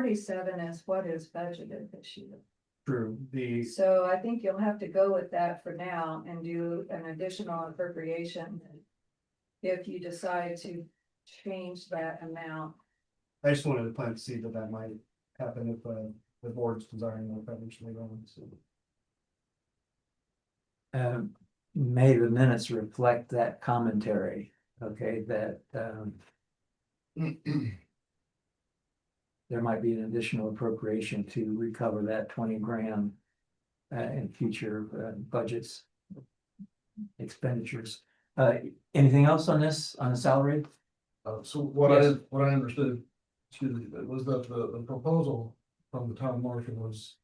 forty-seven is what is budgeted this year. True, the, So I think you'll have to go with that for now and do an additional appropriation. If you decide to change that amount, I just wanted to plant the seed that that might happen if, uh, the board's desiring more financially wrong, so. Um, may the minutes reflect that commentary, okay, that, um. Uh, There might be an additional appropriation to recover that twenty grand. Uh, in future uh, budgets. Expenditures, uh, anything else on this, on the salary? Uh, so what I, Yes. what I understood, excuse me, was that the, the proposal from the town marshal was.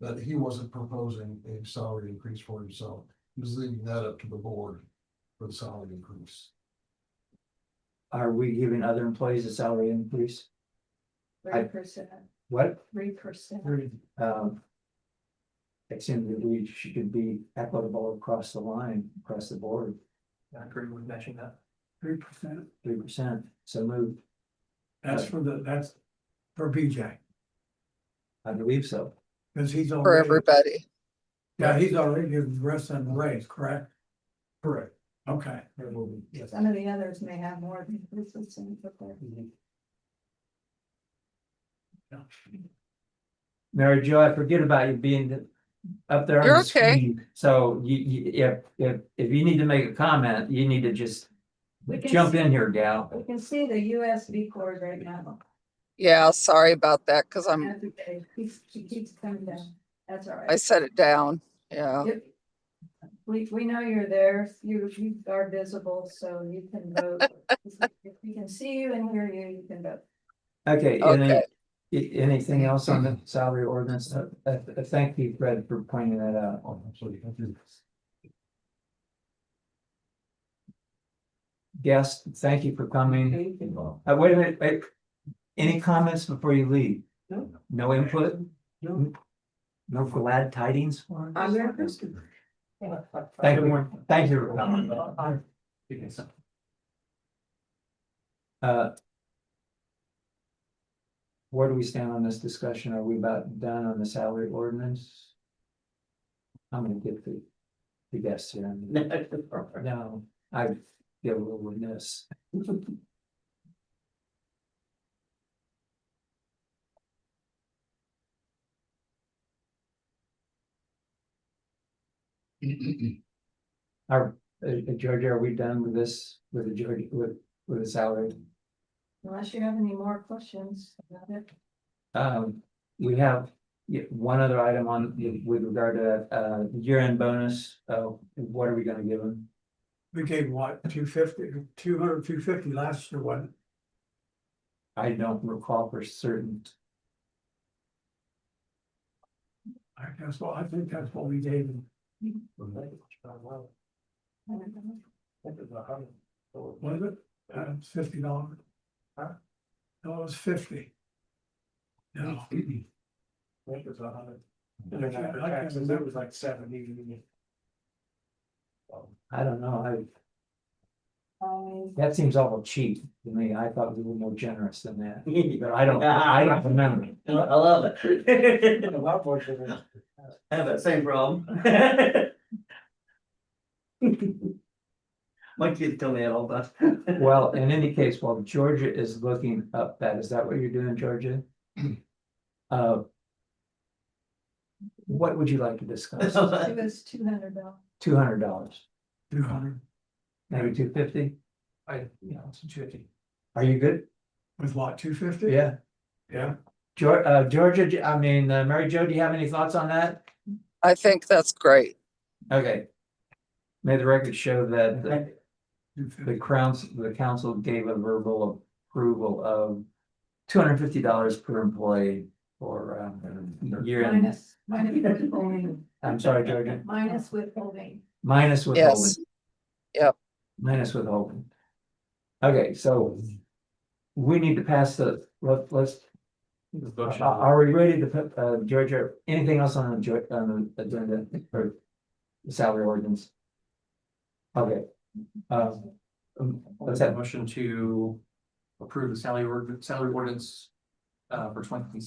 That he wasn't proposing a salary increase for himself, he was leaving that up to the board for the salary increase. Are we giving other employees a salary increase? I- three percent, What, three percent. um. It seems that we should be equitable across the line, across the board. I agree with matching that. three percent, Three percent, so moved, that's for the, that's for BJ, I believe so. because he's for already, everybody. yeah, he's already given Russ and raise, correct? Correct, Okay, there will be, yes. Some of the others may have more than three percent. Mhm. Mary Jo, I forget about you being the- up there. on You're the okay. screen. So you, you, if, if, if you need to make a comment, you need to just We can jump s- in here, gal. We can see the USB cord right now. Yeah, sorry about that, cause I'm, That's okay. Keeps- She keeps coming down. That's all I right. set it down, yeah. Yep. We, we know you're there. You, you are visible, so you can vote. If we can see you and hear you, you can vote. Okay, any, Okay. i- anything else on the salary ordinance? Uh, uh, uh, thank you, Fred, for pointing that out. Oh, I'm sorry, I didn't- Guest, thank you for coming. Uh, wait a minute, wait. Any comments before you leave? No. No input? No. No glad tidings for us? I'm very interested. Thank you, thank you. for coming. Uh. Where do we stand on this discussion? Are we about done on the salary ordinance? I'm gonna get the, the guests here. No, I feel a little remiss. Are, uh, uh, Georgia, are we done with this, with the Georgia, with, with the salary? Unless you have any more questions about it. Um, we have yeah, one other item on, with regard to, uh, year-end bonus, uh, what are we gonna give them? we gave what, two fifty, two hundred, two fifty last year, wasn't I don't recall for certain. it? I guess, well, I think that's what we gave him, was it, uh, fifty dollars? No, it was fifty. No, Oh. It was a hundred. And then after taxes, it was like seventy. um, I don't know, I, Um, that seems awful cheap to me. I thought we were more generous than that, but I don't, I don't remember. I love it. I have that same problem. My kids tell me that all the time. Well, in any case, while Georgia is looking up that, is that what you're doing, Georgia? Uh. What would you like to discuss? It was two hundred dollars. Two hundred dollars, two hundred, maybe two fifty? I, you know, it's tricky. Are you good? with what, two fifty? Yeah. Yeah. Geor- uh, Georgia, do- I mean, uh, Mary Jo, do you have any thoughts on that? I think that's great. Okay. May the record show that the- Two fifty. the crowns, the council gave a verbal approval of two hundred and fifty dollars per employee for um year end. Minus, minus withholding, I'm sorry, Georgia, minus withholding. minus withholding. Yes. Yep. Minus withholding. Okay, so we need to pass the, let, let's, are, Motion. are we ready to put, uh, Georgia, anything else on the, jo- on the agenda or the salary ordinance? Okay, um, let's have Motion to approve the salary, ord- salary ordinance uh, for twenty